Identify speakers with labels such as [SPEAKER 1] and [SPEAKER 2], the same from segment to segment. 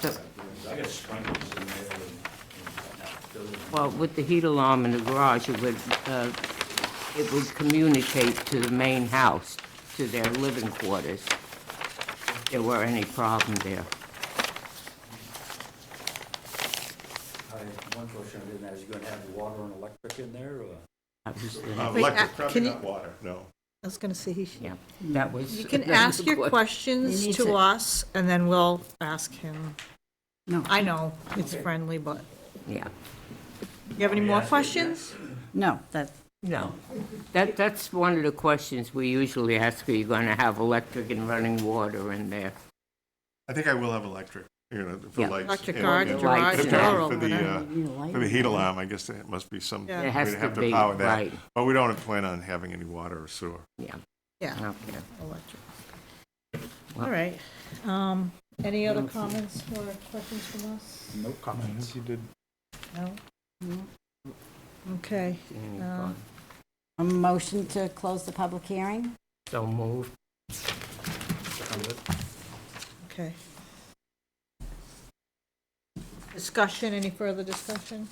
[SPEAKER 1] Does-
[SPEAKER 2] I got sprinklers in there and and whatnot, building.
[SPEAKER 1] Well, with the heat alarm in the garage, it would, uh, it would communicate to the main house, to their living quarters, if there were any problem there.
[SPEAKER 2] I- One question I didn't ask, you gonna have the water and electric in there, or?
[SPEAKER 1] That was the-
[SPEAKER 3] Uh,
[SPEAKER 4] Wait,
[SPEAKER 3] Electric,
[SPEAKER 4] uh,
[SPEAKER 3] probably
[SPEAKER 4] can you-
[SPEAKER 3] not water, no.
[SPEAKER 4] I was going to say, he-
[SPEAKER 1] Yeah, that was.
[SPEAKER 4] you can
[SPEAKER 1] that was
[SPEAKER 4] ask
[SPEAKER 1] the
[SPEAKER 4] your
[SPEAKER 5] He
[SPEAKER 4] questions
[SPEAKER 5] needs
[SPEAKER 4] to
[SPEAKER 5] it.
[SPEAKER 4] us, and then we'll ask him.
[SPEAKER 5] No.
[SPEAKER 4] I know, it's friendly, but,
[SPEAKER 1] Yeah,
[SPEAKER 4] you have any more questions?
[SPEAKER 5] No, that,
[SPEAKER 1] no. That, that's one of the questions we usually ask, are you going to have electric and running water in there?
[SPEAKER 3] I think I will have electric, you know, for
[SPEAKER 1] Yeah.
[SPEAKER 3] lights.
[SPEAKER 4] Electric
[SPEAKER 3] and-
[SPEAKER 4] garage,
[SPEAKER 3] and-
[SPEAKER 1] garage
[SPEAKER 3] for
[SPEAKER 1] door
[SPEAKER 3] the-
[SPEAKER 4] or
[SPEAKER 3] for the,
[SPEAKER 4] whatever.
[SPEAKER 3] uh,
[SPEAKER 5] You need a light.
[SPEAKER 3] For the heat alarm, I guess it must be some.
[SPEAKER 4] Yeah.
[SPEAKER 1] It has
[SPEAKER 3] we'd
[SPEAKER 1] to
[SPEAKER 3] have
[SPEAKER 1] be,
[SPEAKER 3] power that.
[SPEAKER 1] right.
[SPEAKER 3] But we don't plan on having any water or sewer.
[SPEAKER 1] Yeah,
[SPEAKER 4] Yeah,
[SPEAKER 1] okay.
[SPEAKER 4] electric. All right. Um, Any other comments or questions from us?
[SPEAKER 2] No comments. You did.
[SPEAKER 4] No? Okay,
[SPEAKER 1] Any
[SPEAKER 4] Um,
[SPEAKER 1] problem?
[SPEAKER 5] a motion to close the public hearing?
[SPEAKER 1] So moved.
[SPEAKER 4] okay. Discussion, any further discussion?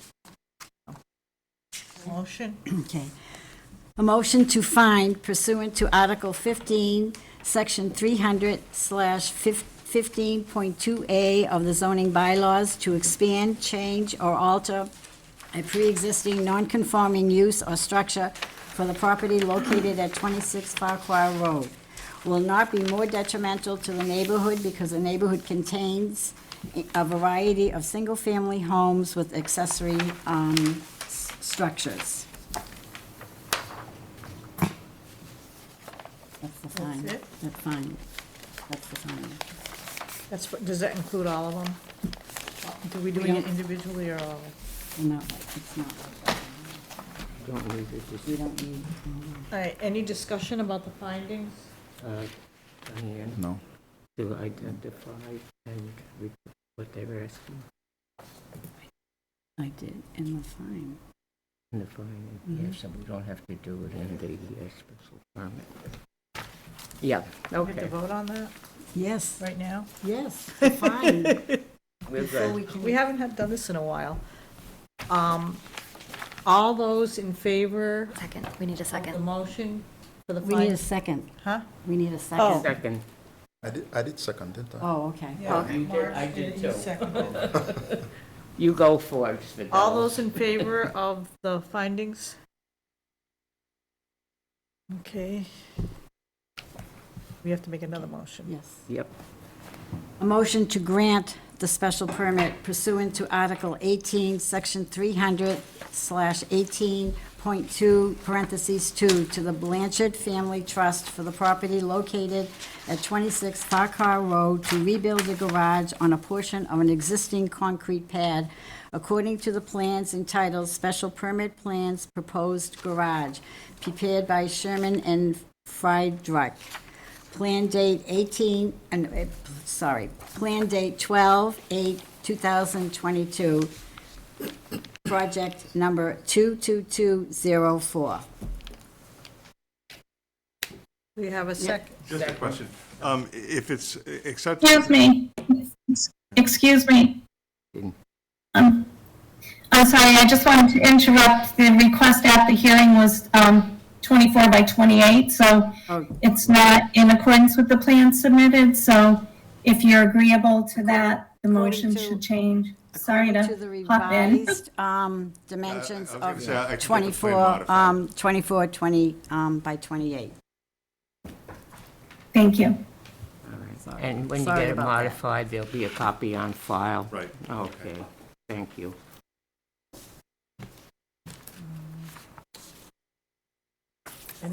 [SPEAKER 4] Motion?
[SPEAKER 5] Okay. A motion to find pursuant to Article 15, Section 300 slash 15.2A of the zoning bylaws to expand, change, or alter a pre-existing non-conforming use or structure for the property located at 26 Farquhar Road will not be more detrimental to the neighborhood because the neighborhood contains a variety of single-family homes with accessory um, s- structures. That's the fine.
[SPEAKER 4] That's it?
[SPEAKER 5] That's fine. That's the fine.
[SPEAKER 4] That's, for- does that include all of them? Do we do
[SPEAKER 5] We
[SPEAKER 4] it
[SPEAKER 5] don't-
[SPEAKER 4] individually or all?
[SPEAKER 5] No, it's not.
[SPEAKER 1] Don't leave it, just,
[SPEAKER 5] We don't need,
[SPEAKER 4] All right, any discussion about the findings?
[SPEAKER 1] uh, Diane,
[SPEAKER 6] No.
[SPEAKER 1] to identify and re- what they were asking
[SPEAKER 5] I did, in the fine.
[SPEAKER 1] in the finding.
[SPEAKER 5] Mm-hmm.
[SPEAKER 1] Yes, and we don't have to do it in the uh, special permit. Yeah,
[SPEAKER 4] We have to
[SPEAKER 1] okay,
[SPEAKER 4] vote on that
[SPEAKER 5] Yes,
[SPEAKER 4] right now?
[SPEAKER 5] yes, the fine.
[SPEAKER 1] we're
[SPEAKER 5] So
[SPEAKER 1] good.
[SPEAKER 5] we can-
[SPEAKER 4] We haven't had, done this in a while. Um, All those in favor
[SPEAKER 7] Second, we need a
[SPEAKER 4] of the
[SPEAKER 7] second.
[SPEAKER 4] motion for the
[SPEAKER 5] We need a
[SPEAKER 4] findings?
[SPEAKER 5] second.
[SPEAKER 4] Huh?
[SPEAKER 5] We need a
[SPEAKER 4] Oh.
[SPEAKER 5] second.
[SPEAKER 1] Second,
[SPEAKER 6] I did, I did second, didn't I?
[SPEAKER 5] Oh, okay.
[SPEAKER 4] Yeah,
[SPEAKER 1] You did- I
[SPEAKER 4] Mark,
[SPEAKER 1] did
[SPEAKER 4] you
[SPEAKER 1] too.
[SPEAKER 4] seconded it.
[SPEAKER 1] you go first, Fidelis.
[SPEAKER 4] All those in favor of the findings? Okay. We have to make another motion.
[SPEAKER 5] Yes.
[SPEAKER 1] Yep,
[SPEAKER 5] A motion to grant the special permit pursuant to Article 18, Section 300 slash 18.2 parentheses 2 to the Blanchard Family Trust for the property located at 26 Farquhar Road to rebuild a garage on a portion of an existing concrete pad according to the plans entitled Special Permit Plans Proposed Garage, prepared by Sherman and Friedreich. Plan date 18, and, uh, sorry, plan date 12, 8, 2022, project number 22204.
[SPEAKER 4] We have a second.
[SPEAKER 3] Just a question. Um, if it's accepted.
[SPEAKER 8] Excuse me. Excuse me. Um, I'm sorry, I just wanted to interrupt. The request at the hearing was um, 24 by 28, so
[SPEAKER 5] Oh.
[SPEAKER 8] it's not in accordance with the plan submitted, so if you're agreeable to that, the motion
[SPEAKER 5] According to-
[SPEAKER 8] should change. Sorry
[SPEAKER 5] According the
[SPEAKER 8] to hop in.
[SPEAKER 5] revised um, dimensions
[SPEAKER 3] I- I
[SPEAKER 5] of
[SPEAKER 3] was gonna say, I- I could get the plan
[SPEAKER 5] 24,
[SPEAKER 3] modified.
[SPEAKER 5] um, 24, 20 um, by 28.
[SPEAKER 8] Thank you.
[SPEAKER 5] Sorry.
[SPEAKER 1] and when you
[SPEAKER 5] Sorry
[SPEAKER 1] get it
[SPEAKER 5] about that.
[SPEAKER 1] modified, there'll be a copy on file.
[SPEAKER 3] Right.
[SPEAKER 1] Okay, thank you.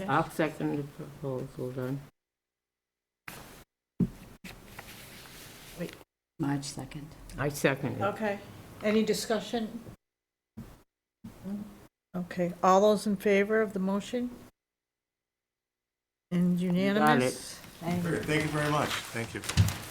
[SPEAKER 1] I'll second the proposal then.
[SPEAKER 5] March 2nd.
[SPEAKER 1] I second it.
[SPEAKER 4] Okay. Any discussion? Okay, all those in favor of the motion? And unanimous?
[SPEAKER 3] Thank you very much. Thank you.